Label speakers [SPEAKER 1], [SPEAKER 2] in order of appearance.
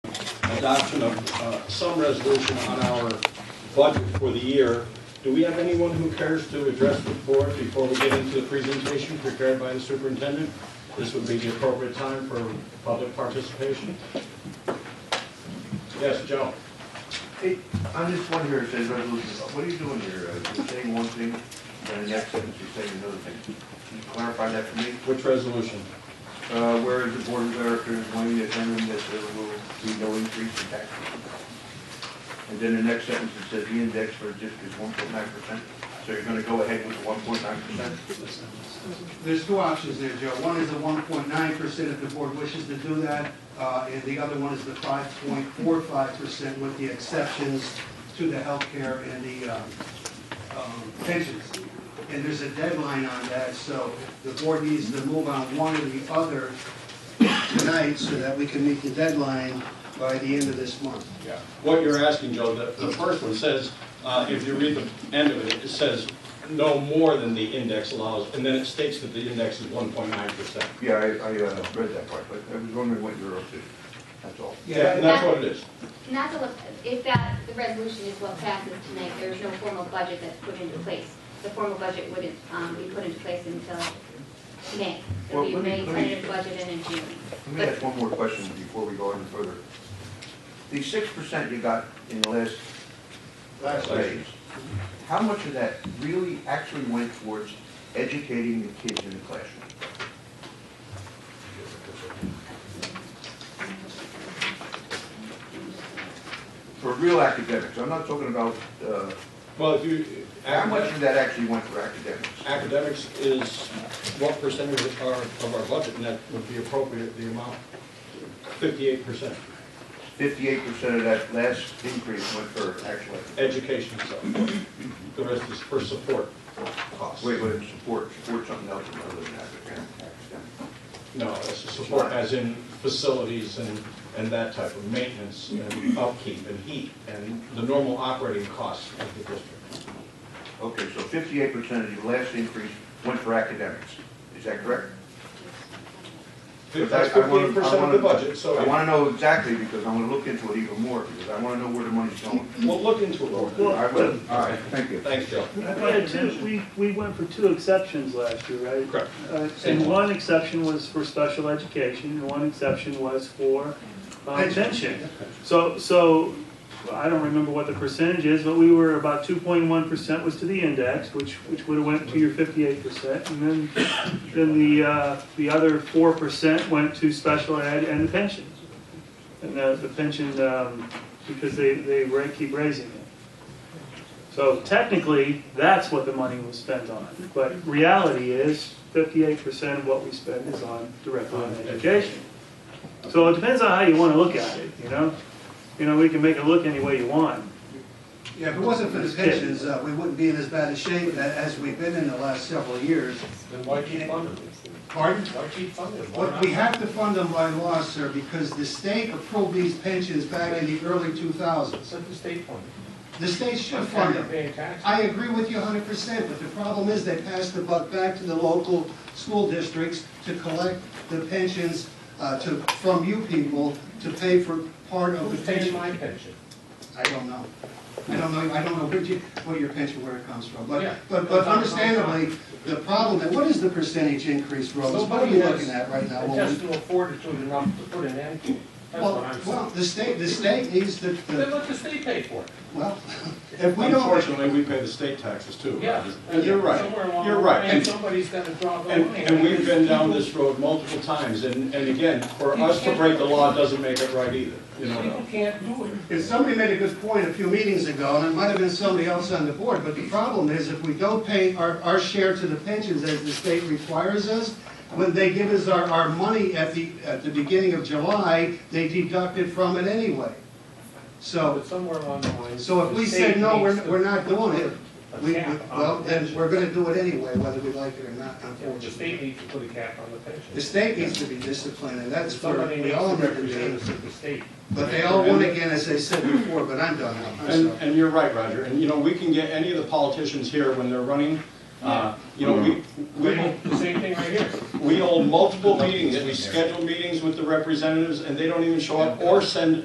[SPEAKER 1] adoption of uh, some resolution on our budget for the year. Do we have anyone who cares to address the board before we get into the presentation prepared by the superintendent? This would be the appropriate time for public participation. Yes, Joe?
[SPEAKER 2] Hey, I'm just wondering, it says resolution, what are you doing here? Uh, You're saying one thing, then the next sentence you're saying another thing. Can you clarify that for me?
[SPEAKER 1] Which resolution?
[SPEAKER 2] Uh, where is the board of directors going to determine that there will be no increase in taxes? And then the next sentence, it says the index for the district is one point nine percent. So you're gonna go ahead with the one point nine percent?
[SPEAKER 3] There's two options there, Joe. One is the one point nine percent if the board wishes to do that, uh, and the other one is the five point four five percent with the exceptions to the healthcare and the, um, um, pensions. And there's a deadline on that, so the board needs to move on one or the other tonight so that we can meet the deadline by the end of this month.
[SPEAKER 1] Yeah. What you're asking, Joe, the, the first one says, uh, if you read the end of it, it says no more than the index allows, and then it states that the index is one point nine percent.
[SPEAKER 2] Yeah, I, I, uh, read that part, but I was wondering what you're up to. That's all.
[SPEAKER 1] Yeah, and that's what it is.
[SPEAKER 4] Not to, look- if that, the resolution is what passes tonight, there's no formal budget that's put into place. The formal budget wouldn't um, be put into place until May. It'll
[SPEAKER 2] Well,
[SPEAKER 4] be
[SPEAKER 2] let me-
[SPEAKER 4] May
[SPEAKER 2] let me-
[SPEAKER 4] tentative budget and in June.
[SPEAKER 2] Let me
[SPEAKER 4] But
[SPEAKER 2] ask one more question before we go any further. The six percent you got in the last
[SPEAKER 1] Last
[SPEAKER 2] raise, how much of that really actually went towards educating the kids in the classroom? For real academics, I'm not talking about, uh,
[SPEAKER 1] Well, if you,
[SPEAKER 2] how much of that actually went for academics?
[SPEAKER 1] academics is what percentage of our, of our budget, and that would be appropriate, the amount? Fifty-eight percent,
[SPEAKER 2] Fifty-eight percent of that last increase went for actual,
[SPEAKER 1] education, so, the rest is for support costs.
[SPEAKER 2] wait, wait, support, support something else other than academics.
[SPEAKER 1] No, it's support as in facilities and, and that type of maintenance and upkeep and heat and the normal operating costs of the district.
[SPEAKER 2] Okay, so fifty-eight percent of the last increase went for academics, is that correct?
[SPEAKER 1] That's
[SPEAKER 2] I- I wanna-
[SPEAKER 1] fifty-eight percent of the
[SPEAKER 2] I wanna-
[SPEAKER 1] budget, so
[SPEAKER 2] I
[SPEAKER 1] if-
[SPEAKER 2] wanna know exactly, because I'm gonna look into it even more, because I wanna know where the money's going.
[SPEAKER 1] we'll look into it. Laura.
[SPEAKER 2] I will, all right, thank you.
[SPEAKER 1] Thanks, Joe.
[SPEAKER 5] We had two, we, we went for two exceptions last year, right?
[SPEAKER 1] Correct.
[SPEAKER 5] Uh, And one exception was for special education, and one exception was for uh, pension. So, so, I don't remember what the percentage is, but we were about two point one percent was to the index, which, which would've went to your fifty-eight percent. And then, then the, uh, the other four percent went to special ed and the pension. And the, the pension, um, because they, they ra- keep raising it. So technically, that's what the money was spent on, but reality is fifty-eight percent of what we spend is on directly on education. So it depends on how you wanna look at it, you know? You know, we can make it look any way you want.
[SPEAKER 3] Yeah, if it wasn't for the pensions, uh, we wouldn't be in as bad a shape a- as we've been in the last several years.
[SPEAKER 1] Then why keep funding?
[SPEAKER 3] Pardon?
[SPEAKER 1] Why keep funding? Why
[SPEAKER 3] What
[SPEAKER 1] not?
[SPEAKER 3] we have to fund them by law, sir, because the state approved these pensions back in the early 2000s.
[SPEAKER 6] Let the state fund
[SPEAKER 3] The state should
[SPEAKER 6] it.
[SPEAKER 3] fund
[SPEAKER 6] They're
[SPEAKER 3] them.
[SPEAKER 6] paying taxes.
[SPEAKER 3] I agree with you 100%, but the problem is they passed the buck back to the local school districts to collect the pensions uh, to, from you people to pay for part of
[SPEAKER 6] Who's
[SPEAKER 3] the pension.
[SPEAKER 6] paying my pension?
[SPEAKER 3] I don't know. I don't know, I don't know what you, what your pension, where it comes from, but,
[SPEAKER 6] Yeah.
[SPEAKER 3] but, but understandably, the problem, what is the percentage increase, Rose? What are
[SPEAKER 6] Nobody
[SPEAKER 3] you
[SPEAKER 6] has
[SPEAKER 3] looking at right now? when we-
[SPEAKER 6] Intestinal fortitude enough to put an end to it. That's what
[SPEAKER 3] Well,
[SPEAKER 6] I'm saying.
[SPEAKER 3] well, the state, the state needs the,
[SPEAKER 6] Then
[SPEAKER 3] the,
[SPEAKER 6] let the state pay for it.
[SPEAKER 3] well, if we don't,
[SPEAKER 1] Unfortunately, we pay the state taxes too.
[SPEAKER 6] Yeah.
[SPEAKER 1] And you're right,
[SPEAKER 6] Somewhere along
[SPEAKER 1] you're
[SPEAKER 6] the
[SPEAKER 1] right.
[SPEAKER 6] way,
[SPEAKER 1] And-
[SPEAKER 6] somebody's got to draw the line.
[SPEAKER 1] And, and we've been down this road multiple times, and, and again, for us to break the law doesn't make it right either, you
[SPEAKER 6] People
[SPEAKER 1] know?
[SPEAKER 6] can't do it.
[SPEAKER 3] if somebody made a good point a few meetings ago, and it might have been somebody else on the board, but the problem is if we don't pay our, our share to the pensions as the state requires us, when they give us our, our money at the, at the beginning of July, they deduct it from it anyway. So,
[SPEAKER 6] But somewhere along the line.
[SPEAKER 3] so if
[SPEAKER 6] the
[SPEAKER 3] we
[SPEAKER 6] state
[SPEAKER 3] said, no,
[SPEAKER 6] needs
[SPEAKER 3] we're,
[SPEAKER 6] to
[SPEAKER 3] we're not doing it,
[SPEAKER 6] put a
[SPEAKER 3] we, we-
[SPEAKER 6] cap on
[SPEAKER 3] well,
[SPEAKER 6] the
[SPEAKER 3] then
[SPEAKER 6] pension.
[SPEAKER 3] we're gonna do it anyway, whether we like it or not,
[SPEAKER 6] Yeah, The
[SPEAKER 3] unfortunately.
[SPEAKER 6] state needs to put a cap on the pension.
[SPEAKER 3] The state needs to be disciplined, and that's for,
[SPEAKER 6] Somebody
[SPEAKER 3] we
[SPEAKER 6] needs
[SPEAKER 3] all
[SPEAKER 6] to
[SPEAKER 3] need to
[SPEAKER 6] represent
[SPEAKER 3] do.
[SPEAKER 6] us at the state.
[SPEAKER 3] But they all won again, as I said before, but I'm done now, I'm
[SPEAKER 1] And,
[SPEAKER 3] sorry.
[SPEAKER 1] and you're right, Roger, and you know, we can get any of the politicians here when they're running, uh, you know, we, we will
[SPEAKER 6] The same thing right here.
[SPEAKER 1] We hold multiple meetings, we schedule meetings with the representatives, and they don't even show up or send